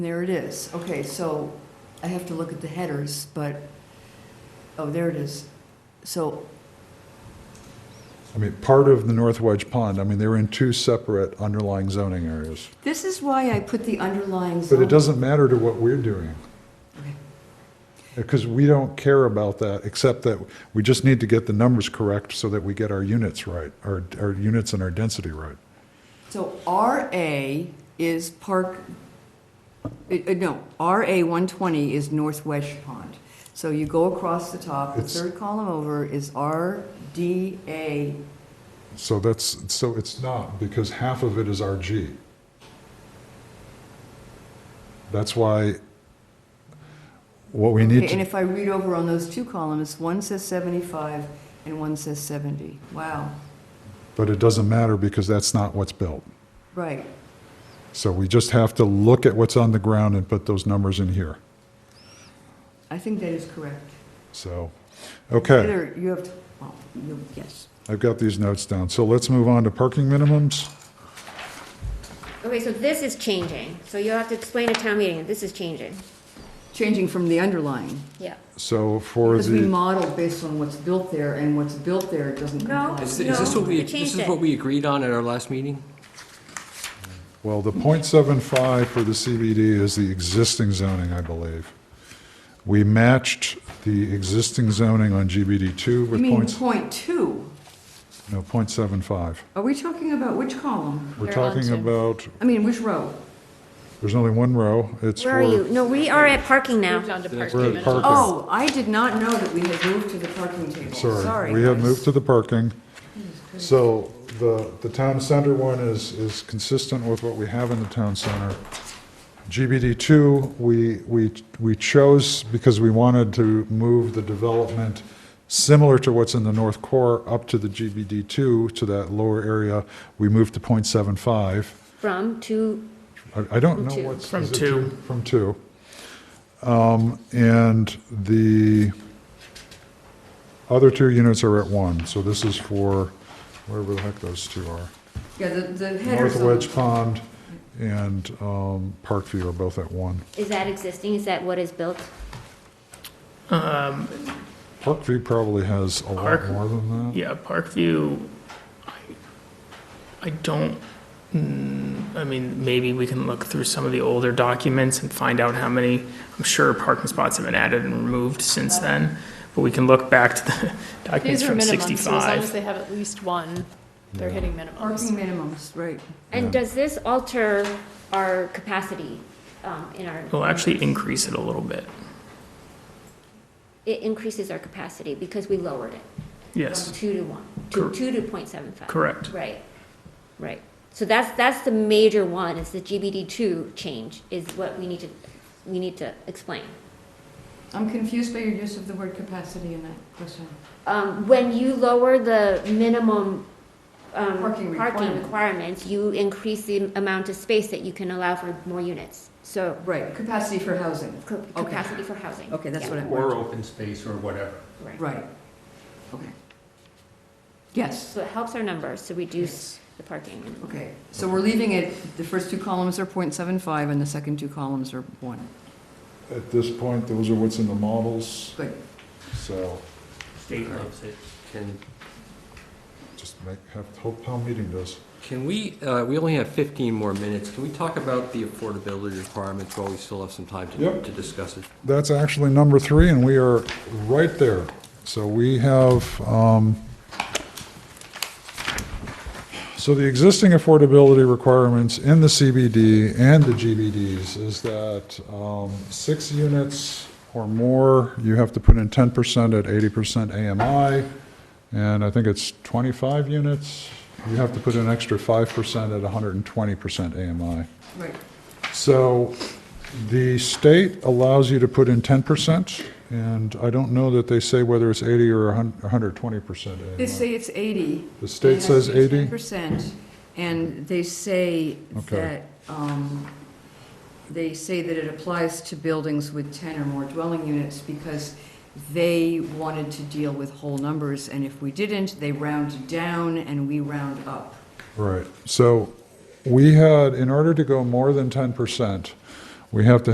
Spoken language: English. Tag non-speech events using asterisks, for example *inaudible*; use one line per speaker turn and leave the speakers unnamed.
There it is. Okay, so I have to look at the headers, but, oh, there it is. So,
I mean, part of the North Wedge Pond, I mean, they're in two separate underlying zoning areas.
this is why I put the underlying
But
zone.
it doesn't matter to what we're doing,
Okay.
because we don't care about that, except that we just need to get the numbers correct so that we get our units right, our, our units and our density right.
So RA is Park, uh, uh, no, RA 120 is Northwest Pond. So you go across the top, the
It's-
third column over is RDA.
So that's, so it's not, because half of it is RG. That's why, what we need
Okay,
to.
And if I read over on those two columns, one says 75 and one says 70. Wow,
But it doesn't matter because that's not what's built.
right.
So we just have to look at what's on the ground and put those numbers in here.
I think that is correct.
So, okay,
Either you have, to- well, you, yes.
I've got these notes down. So let's move on to parking minimums.
Okay, so this is changing, so you'll have to explain at town meeting, this is changing.
Changing from the underlying,
Yeah.
So for
because we
the,
model based on what's built there, and what's built there doesn't
No.
comply.
Is
No.
is this what
we
we,
changed
this is
it.
what we agreed on at our last meeting?
well, the .75 for the CBD is the existing zoning, I believe. We matched the existing zoning on GBD2
You
with
mean
points,
point two?
no, .75.
Are we talking about which column?
We're
They're on
talking
to-
about,
I mean, which row?
there's only one row. It's
Where are you?
for,
No, we are at parking
Moved
now.
on to
we're
parking.
at parking.
Oh, I did not know that we had moved to the parking table. Sorry.
Sorry, we have
guys.
moved to the parking. So the, the town center one is, is consistent with what we have in the town center. GBD two, we, we, we chose because we wanted to move the development similar to what's in the north core up to the GBD two, to that lower area. We moved to 0.75.
From to,
I, I don't
From
know
two.
what's.
From
is it
two.
From two. Um, and the other two units are at one, so this is for wherever the heck those two are.
Yeah, the, the headers.
North Wedge Pond and, um, Parkview are both at one.
is that existing? Is that what is built?
Um,
Parkview probably has a lot
Park-
more than that.
Yeah, Parkview, I, I don't, mm, I mean, maybe we can look through some of the older documents and find out how many, I'm sure parking spots have been added and removed since then, but we can look back to the *laughs* documents
These are
from
minimums, so as long as
sixty-five.
they have at least one, they're hitting minimums.
Parking minimums, right.
And does this alter our capacity um, in our?
We'll actually increase it a little bit,
It increases our capacity because we lowered it from
yes,
two to one, to
Cor-
two to point seven five.
correct.
Right, right. So that's, that's the major one, is the GBD two change, is what we need to, we need to explain.
I'm confused by your use of the word capacity in that question.
um, when you lower the minimum um,
Parking
parking
requirement.
requirements, you increase the amount of space that you can allow for more units. So
Right, capacity for housing.
ca-
Okay.
capacity for housing.
Okay, that's
Yeah,
what I
Or
wanted.
open space or whatever.
Right. Okay. Yes.
So it helps our numbers to reduce the parking.
Okay, so we're leaving it, the first two columns are .75 and the second two columns are one.
At this point, those are what's in the models,
Good.
so
State loves it. Can,
just make, have, hope town meeting does.
can we, uh, we only have 15 more minutes. Can we talk about the affordability requirements while we still have some time to
Yep.
to discuss it?
That's actually number three, and we are right there. So we have, um, so the existing affordability requirements in the CBD and the GBDs is that um, six units or more, you have to put in 10% at 80% AMI, and I think it's 25 units, you have to put in an extra 5% at 120% AMI.
Right.
So the state allows you to put in 10%, and I don't know that they say whether it's 80 or a hun- 120%. AMI.
They say it's 80.
The state says 80?
Percent, and they say
Okay.
that, um, they say that it applies to buildings with 10 or more dwelling units because they wanted to deal with whole numbers, and if we didn't, they round down and we round up.
Right. So we had, in order to go more than 10%, we have to